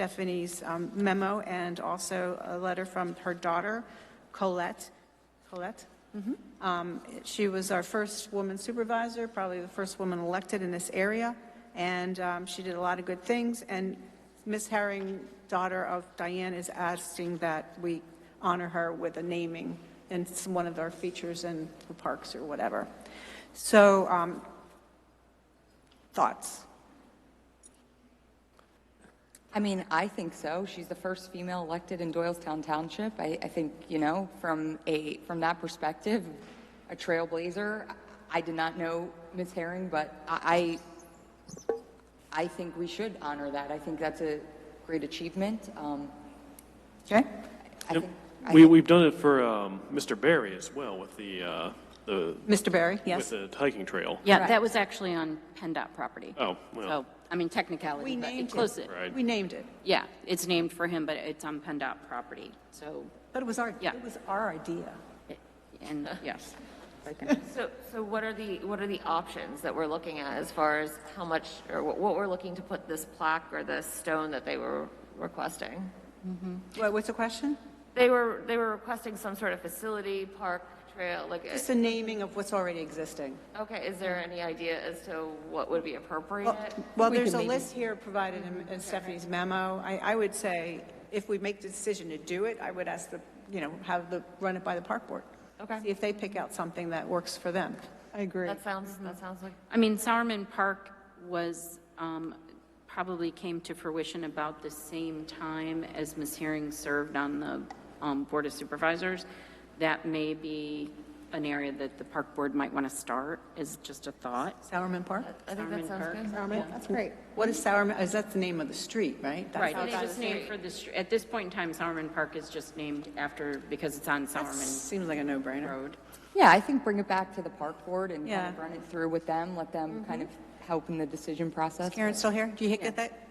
Stephanie's um, memo and also a letter from her daughter, Colette. Colette? Um, She was our first woman supervisor, probably the first woman elected in this area, and um, she did a lot of good things. And Ms. Herring, daughter of Diane, is asking that we honor her with a naming in some- one of our features in the parks or whatever. So, um, thoughts? I mean, I think so. She's the first female elected in Doylestown Township. I, I think, you know, from a, from that perspective, a trailblazer. I did not know Ms. Herring, but I, I I think we should honor that. I think that's a great achievement. Um, Okay? I think, I We, think we've done it for um, Mr. Barry as well with the, uh, the, Mr. Barry, with yes? the hiking trail. Yeah, Correct. that was actually on PennDOT property. Oh, well. So, I mean, technicality, We but named it it. close it. Right. We named it, Yeah, it's named for him, but it's on PennDOT property, so, but it was our, Yeah. it was our idea. it- and, yes. So, so what are the, what are the options that we're looking at as far as how much, or what what we're looking to put this plaque or this stone that they were requesting? What- What's the question? They were, they were requesting some sort of facility, park, trail, like, Just a naming of what's already existing. okay, is there any idea as to what would be appropriate? Well, there's a list here provided in- in Stephanie's memo. I, I would say, if we make the decision to do it, I would ask the, you know, have the, run it by the park board. Okay. See if they pick out something that works for them. I agree. That sounds, that sounds like, I mean, Sowerman Park was, um, probably came to fruition about the same time as Ms. Herring served on the um, Board of Supervisors. That may be an area that the park board might want to start, is just a thought. Sowerman Park? I think that Sowerman sounds Park. good. That's great. What is Sowerman, is that the name of the street, right? That's Right, how it's that- just named for the, str- at this point in time, Sowerman Park is just named after, because it's on That Sowerman seems like a no-brainer. Road. Yeah, I think bring it back to the park board and kind of Yeah. run it through with them, let them kind of help in the decision process. Karen, still here? Do you get that?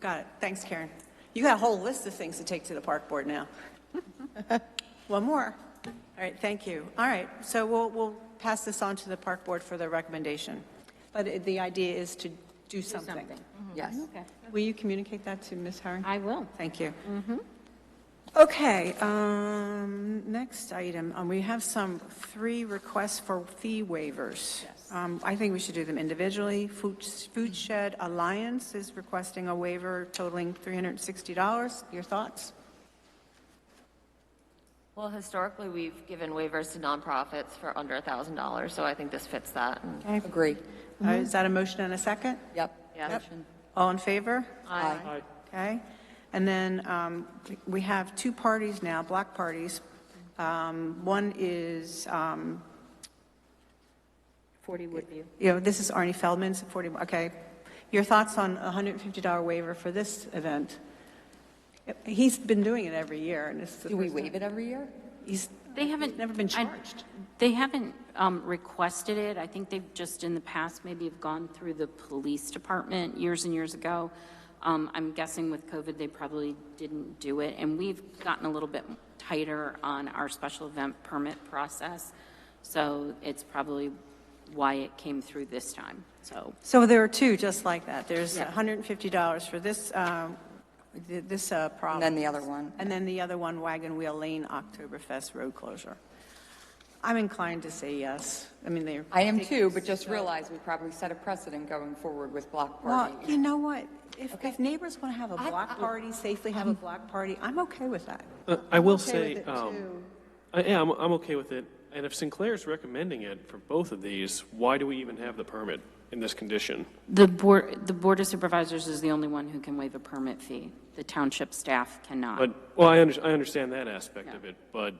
Got it. Thanks, Karen. You got a whole list of things to take to the park board now. One more. All right, thank you. All right, so we'll, we'll pass this on to the park board for their recommendation. But it- the idea is to do something. something. Yes. Will you communicate that to Ms. Herring? I will. Mm-hmm. Thank you. Okay, um, next item, um, we have some, three requests for fee waivers. Um, I think we should do them individually. Food Food Shed Alliance is requesting a waiver totaling $360. Your thoughts? Uh, Well, historically, we've given waivers to nonprofits for under a thousand dollars, so I think this fits that. and- Agree. Uh, Mm-hmm. Is that a motion and a second? Yep. Yeah. Motion. All in favor? Aye. Okay. And then um, we have two parties now, block parties. Um, One is um, 40 Woodview. you know, this is Arnie Feldman's 40, okay. Your thoughts on a $150 waiver for this event? He's been doing it every year, and it's the Do we first time- waive it every year? He's, They haven't. never been I- charged. They haven't um, requested it. I think they've just in the past maybe have gone through the police department years and years ago. Um, I'm guessing with COVID, they probably didn't do it. And we've gotten a little bit tighter on our special event permit process. So it's probably why it came through this time, so. So there are two just like that. There's $150 for this, um, th- this uh, problem. then the other one. And then the other one, Wagon Wheel Lane Oktoberfest Road Closure. I'm inclined to say yes. I mean, they're. I am too, but just realize we probably set a precedent going forward with block Well, parties. you know what? If, if neighbors want to have a block party, safely have a block party, I'm okay with that. Uh, I will okay say, with it, um, too. I, yeah, I'm, I'm okay with it. And if Sinclair's recommending it for both of these, why do we even have the permit in this condition? The board, the Board of Supervisors is the only one who can waive a permit fee. The township staff cannot. But, well, I, under, I understand that aspect of it, but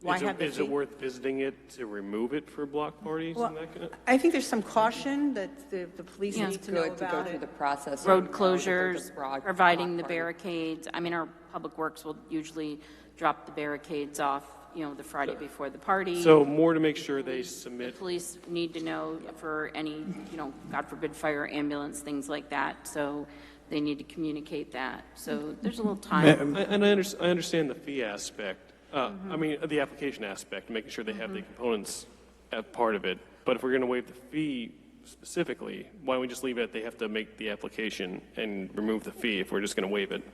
Why is, have it, the is it fee? worth visiting it to remove it for block parties Well, and that kind of? I think there's some caution that the, the police Yeah. need It's to know good to go about through it. the process. so we road know that there's closures, a broad providing the block party. barricades. I mean, our public works will usually drop the barricades off, you know, the Friday before the party. So more to make sure they The submit police need to know for any, you know, God forbid, fire, ambulance, things like that. So they need to communicate that. So there's a little time. I- And I under, I understand the fee aspect, uh, I mean, the application aspect, making sure they have the components at part of it. But if we're going to waive the fee specifically, why don't we just leave it, they have to make the application and remove the fee if we're just going to waive it?